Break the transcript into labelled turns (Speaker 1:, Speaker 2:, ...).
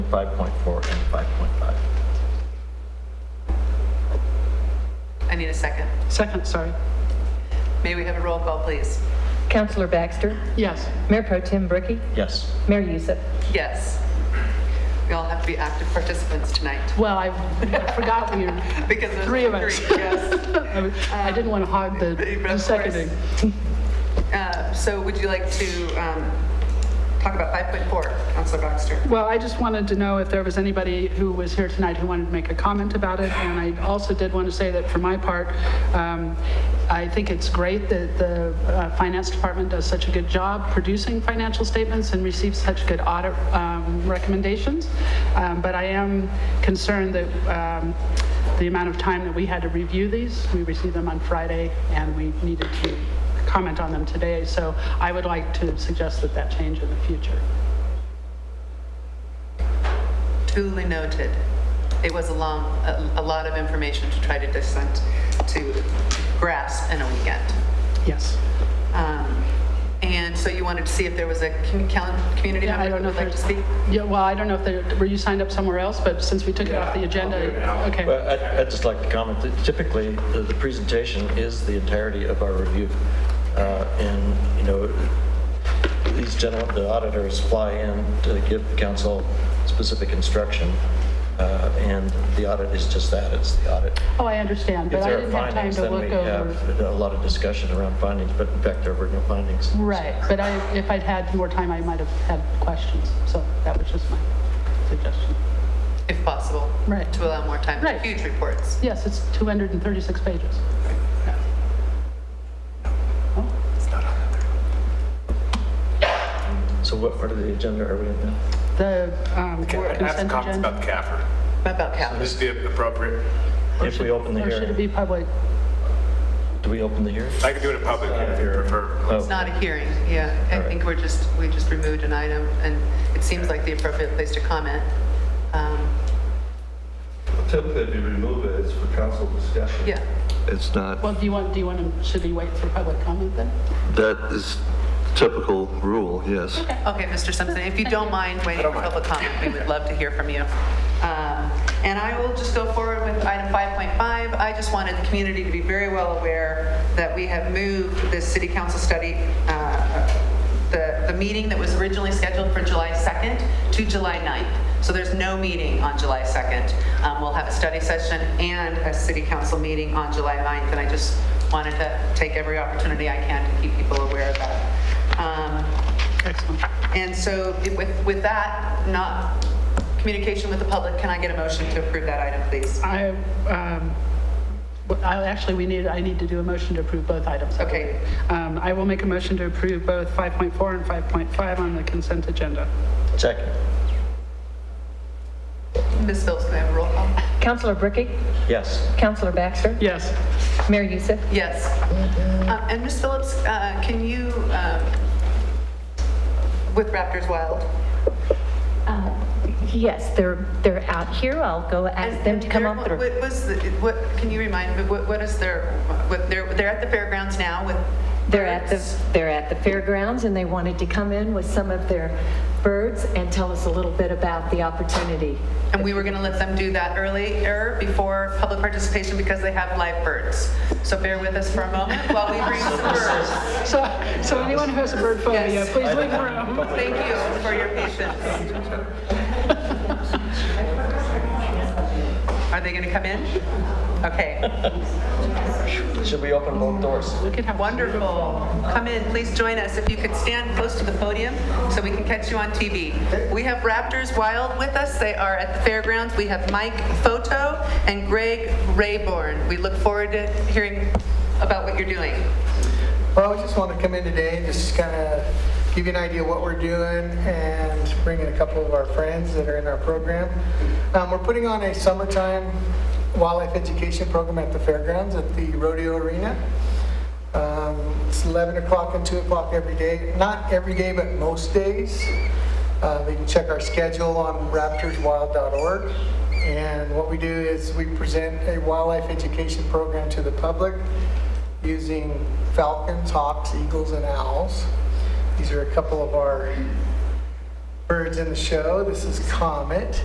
Speaker 1: 5.4 and 5.5.
Speaker 2: I need a second.
Speaker 3: Second, sorry.
Speaker 2: May we have a roll call, please?
Speaker 4: Councillor Baxter,
Speaker 3: Yes.
Speaker 4: Mayor Pro Tim Bricky,
Speaker 1: Yes.
Speaker 4: Mayor Youssef.
Speaker 2: Yes. We all have to be active participants tonight
Speaker 3: Well, I forgot we were,
Speaker 2: because there's
Speaker 3: Three of
Speaker 2: only
Speaker 3: us.
Speaker 2: three, Yes.
Speaker 3: I I didn't want to hog the
Speaker 2: Of
Speaker 3: the
Speaker 2: course.
Speaker 3: seconding.
Speaker 2: Uh, So would you like to um, talk about 5.4, Counselor Baxter?
Speaker 3: Well, I just wanted to know if there was anybody who was here tonight who wanted to make a comment about it. And I also did want to say that for my part, um, I think it's great that the uh, Finance Department does such a good job producing financial statements and receives such good audit um, recommendations. Um, But I am concerned that um, the amount of time that we had to review these, we received them on Friday, and we needed to comment on them today. So I would like to suggest that that change in the future.
Speaker 2: Duly noted. It was a long, a a lot of information to try to dissent, to grasp in a weekend.
Speaker 3: Yes.
Speaker 2: Um, And so you wanted to see if there was a commu- cal- community
Speaker 3: Yeah,
Speaker 2: member
Speaker 3: I don't
Speaker 2: who
Speaker 3: know
Speaker 2: would
Speaker 3: if
Speaker 2: like to
Speaker 3: there's-
Speaker 2: speak?
Speaker 3: Yeah, well, I don't know if there, were you signed up somewhere else, but since we took it off the agenda, okay.
Speaker 1: Well, I- I'd just like to comment that typically, the the presentation is the entirety of our review. Uh, And, you know, these gentlemen, the auditors fly in to give the council specific instruction, uh, and the audit is just that, it's the audit.
Speaker 3: Oh, I understand,
Speaker 1: If
Speaker 3: but I
Speaker 1: there are
Speaker 3: didn't have time
Speaker 1: findings,
Speaker 3: to
Speaker 1: then we
Speaker 3: look over.
Speaker 1: have a lot of discussion around findings, but in fact, there were no findings.
Speaker 3: Right, but I, if I'd had more time, I might have had questions, so that was just my suggestion.
Speaker 2: If possible.
Speaker 3: Right.
Speaker 2: To allow more time for
Speaker 3: Right.
Speaker 2: huge reports.
Speaker 3: Yes, it's 236 pages.
Speaker 1: So what part of the agenda are we in now?
Speaker 3: The um,
Speaker 5: I have some
Speaker 3: consent
Speaker 5: comments about
Speaker 3: agenda.
Speaker 5: the CAFR.
Speaker 2: About cap.
Speaker 5: This would be appropriate.
Speaker 3: or
Speaker 1: If
Speaker 3: should-
Speaker 1: we open the
Speaker 3: Or should it
Speaker 1: hearing,
Speaker 3: be public?
Speaker 1: do we open the hearing?
Speaker 5: I could do it in public if you prefer.
Speaker 2: It's not a hearing, yeah. I
Speaker 1: Oh. right.
Speaker 2: think we're just, we just removed an item, and it seems like the appropriate place to comment. Um,
Speaker 6: Typically, if you remove it, it's for council discussion.
Speaker 2: Yeah,
Speaker 7: It's not,
Speaker 3: Well, do you want, do you want to, should we wait for public comment then?
Speaker 7: that is typical rule, yes.
Speaker 2: okay, Mr. Simpson, if you don't mind waiting for public comment, we would love to hear from you. Um, And I will just go forward with item 5.5. I just wanted the community to be very well aware that we have moved this city council study, uh, the, the meeting that was originally scheduled for July 2nd to July 9th. So there's no meeting on July 2nd. Um, We'll have a study session and a city council meeting on July 9th, and I just wanted to take every opportunity I can to keep people aware of that. Um,
Speaker 3: Excellent.
Speaker 2: And so it- with, with that, not communication with the public, can I get a motion to approve that item, please?
Speaker 3: I, um, well, I- actually, we need, I need to do a motion to approve both items. I
Speaker 2: Okay.
Speaker 3: believe. Um, I will make a motion to approve both 5.4 and 5.5 on the consent agenda.
Speaker 1: Second.
Speaker 2: Ms. Phillips, can I have a roll call?
Speaker 4: Councillor Bricky,
Speaker 1: Yes.
Speaker 4: Councillor Baxter,
Speaker 3: Yes.
Speaker 4: Mayor Youssef.
Speaker 2: Yes. Uh, And Ms. Phillips, uh, can you, um, with Raptors Wild,
Speaker 4: Uh, Yes, they're, they're out here. I'll go ask
Speaker 2: And-
Speaker 4: them
Speaker 2: and
Speaker 4: to come
Speaker 2: their-
Speaker 4: on through.
Speaker 2: What was, the- what, can you remind me, what, what is their, what, they're, they're at the fairgrounds now with?
Speaker 4: They're at the,
Speaker 2: birds?
Speaker 4: they're at the fairgrounds and they wanted to come in with some of their birds and tell us a little bit about the opportunity.
Speaker 2: And we were gonna let them do that earlier, before public participation, because they have live birds. So bear with us for a moment while we bring some birds.
Speaker 3: So, so anyone who has a bird phobia,
Speaker 2: Yes.
Speaker 3: please leave the room.
Speaker 2: Thank you for your patience. Are they gonna come in? Okay,
Speaker 1: Should we open both doors?
Speaker 3: We could have one.
Speaker 2: wonderful. Come in, please join us. If you could stand close to the podium so we can catch you on TV. We have Raptors Wild with us. They are at the fairgrounds. We have Mike Photo and Greg Rayborn. We look forward to hearing about what you're doing.
Speaker 8: Well, I just want to come in today, just kind of give you an idea of what we're doing and bring in a couple of our friends that are in our program. Um, We're putting on a summertime wildlife education program at the fairgrounds at the rodeo arena. Um, It's 11 o'clock and 2 o'clock every day, not every day, but most days. Uh, They can check our schedule on raptorswild.org. And what we do is we present a wildlife education program to the public using falcons, hawks, eagles, and owls. These are a couple of our birds in the show. This is Comet.